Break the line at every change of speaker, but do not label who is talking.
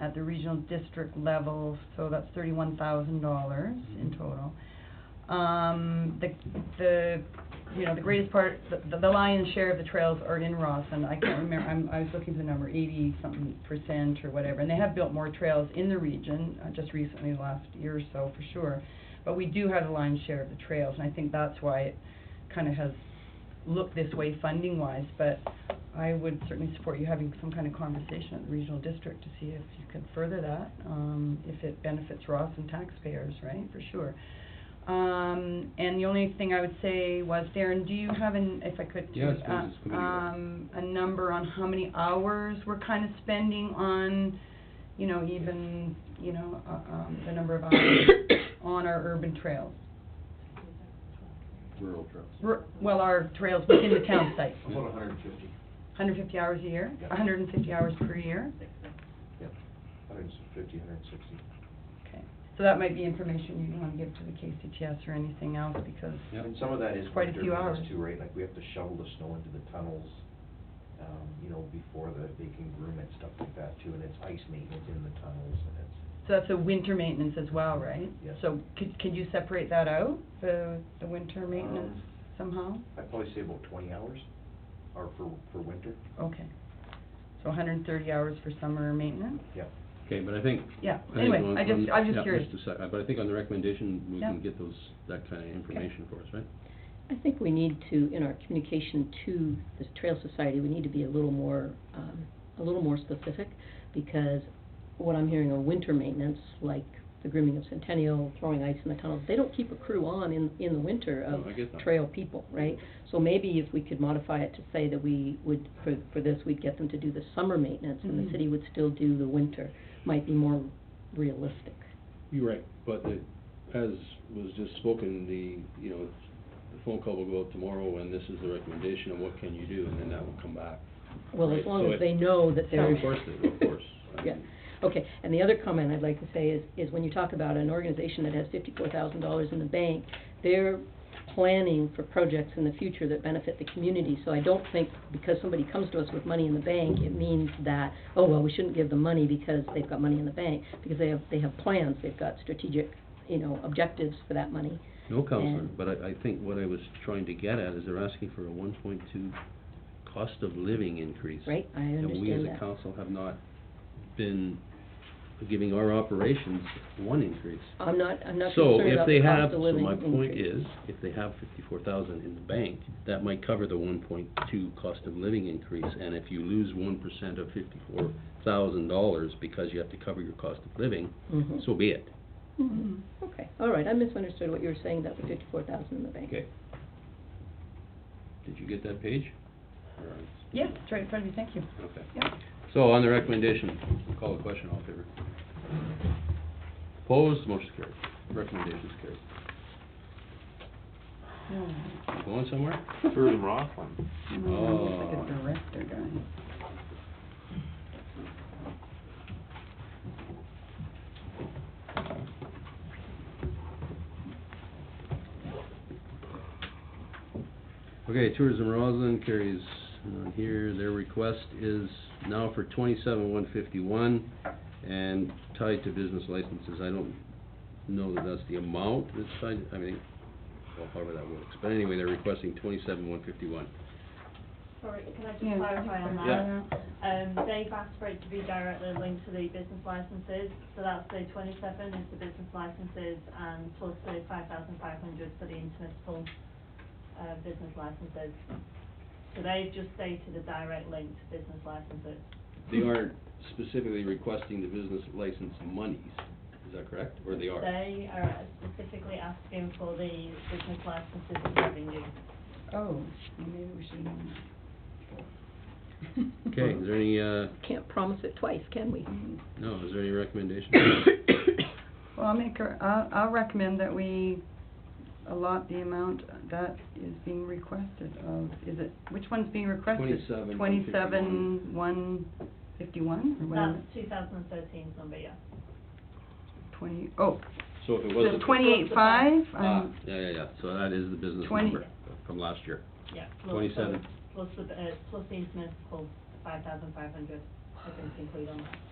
at the regional district level, so that's thirty-one thousand dollars in total. Um, the, the, you know, the greatest part, the, the lion's share of the trails are in Rosslyn, I can't remember, I'm, I was looking for the number, eighty-something percent or whatever, and they have built more trails in the region, uh, just recently, the last year or so, for sure. But we do have the lion's share of the trails, and I think that's why it kind of has looked this way funding-wise, but I would certainly support you having some kind of conversation at the regional district to see if you can further that, um, if it benefits Ross and taxpayers, right, for sure. Um, and the only thing I would say was, Darren, do you have an, if I could?
Yes,
uh,
please, it's good to hear.
Um, a number on how many hours we're kind of spending on, you know, even, you know, uh, um, the number of hours on our urban trails?
rural trails.
We're- Well, our trails within the town site,
About hundred and fifty.
hundred fifty hours a year,
Yeah.
hundred and fifty hours per year?
Yeah, hundred and fifty, hundred and sixty.
Okay, so that might be information you'd wanna give to the KCTS or anything else, because,
Yep.
And some of that is
Quite a
winter
few
because
hours.
too, right? Like, we have to shovel the snow into the tunnels, um, you know, before the, they can groom it, stuff like that too. And it's ice maintenance in the tunnels and it's,
so that's a winter maintenance as well, right?
Yes.
So could, could you separate that out, the, the winter maintenance
Um,
somehow?
I'd probably say about twenty hours, or for, for winter,
Okay, so hundred and thirty hours for summer maintenance?
yeah.
Okay, but I think.
Yeah,
I think
anyway,
on-
I just-
on-
I'm just
yeah,
curious.
a sec- but I think on the recommendation, we
Yeah.
can get those, that kind of information for us, right?
I think we need to, in our communication to the Trail Society, we need to be a little more, um, a little more specific, because what I'm hearing are winter maintenance, like the grooming of Centennial, throwing ice in the tunnels, they don't keep a crew on in, in the winter
No,
of
I get that.
trail people, right? So maybe if we could modify it to say that we would, for, for this, we'd get them to do the summer maintenance, and
Mhm.
the city would still do the winter, might be more realistic.
You're right, but the, as was just spoken, the, you know, the phone call will go out tomorrow, and this is the recommendation, and what can you do, and then that will come back.
Well,
Right,
as long
so
as
it-
they
Oh,
know that
Yeah,
they're.
Of course, they- of course. I
Yeah,
mean,
okay, and the other comment I'd like to say is, is when you talk about an organization that has fifty-four thousand dollars in the bank, they're planning for projects in the future that benefit the community, so I don't think because somebody comes to us with money in the bank, it means that, oh, well, we shouldn't give them money because they've got money in the bank, because they have, they have plans, they've got strategic, you know, objectives for that money.
No, Counselor,
And-
but I, I think what I was trying to get at is they're asking for a one point two cost of living increase.
Right, I
And
understand
we as a
that.
council have not been giving our operations one increase.
I'm not, I'm not
So
concerned
if
about
they
the
have,
cost of
so
living
my point
increase.
is, if they have fifty-four thousand in the bank, that might cover the one point two cost of living increase. And if you lose one percent of fifty-four thousand dollars because you have to cover your cost of living,
Mhm.
so be it. Mm-hmm.
Mm-hmm.
Mhm. Okay, all right, I misunderstood what you were saying about the fifty-four thousand in the bank.
Okay. Did you get that page? All right.
Yeah, it's right in front of you, thank you.
Okay.
Yeah.
So on the recommendation, call the question, all in favor? Opposed, motion carried. Recommendation's carried.
No,
Going somewhere?
Tourism Rockland.
no, it's like a
Oh.
director guy.
Okay, Tourism Roslin carries on here, their request is now for twenty-seven one fifty-one and tied to business licenses, I don't know that that's the amount that's tied, I mean, well, however that works, but anyway, they're requesting twenty-seven one fifty-one.
Sorry, can
Yeah,
I just clarify on
just
that?
clarify.
Um, they've asked for it to be directly linked to the business licenses, so that's the twenty-seven is the business licenses and plus the five thousand five hundred for the intermunicipal, uh, business licenses. So they've just stated a direct link to business licenses.
They aren't specifically requesting the business license monies, is that correct, or they are?
They are specifically asking for the business licenses and revenue.
Oh, well, maybe we should. um,
Okay, is there any, uh,
Can't promise it twice, can we?
no, is there any recommendation?
Well, I'll make, a- I'll, I'll recommend that we allot the amount that is being requested of, is it, which one's being requested?
27,
27, 151, or whatever,
That's two thousand and thirteen's number, yeah.
20, oh,
So if it was
the
a-
28.5,
Ah,
um,
yeah, yeah, yeah, so that is the business
Twenty-
number from last year.
Yeah. plus the-
27.
Plus the, uh, plus the intermunicipal, five thousand five hundred, I think, included on that.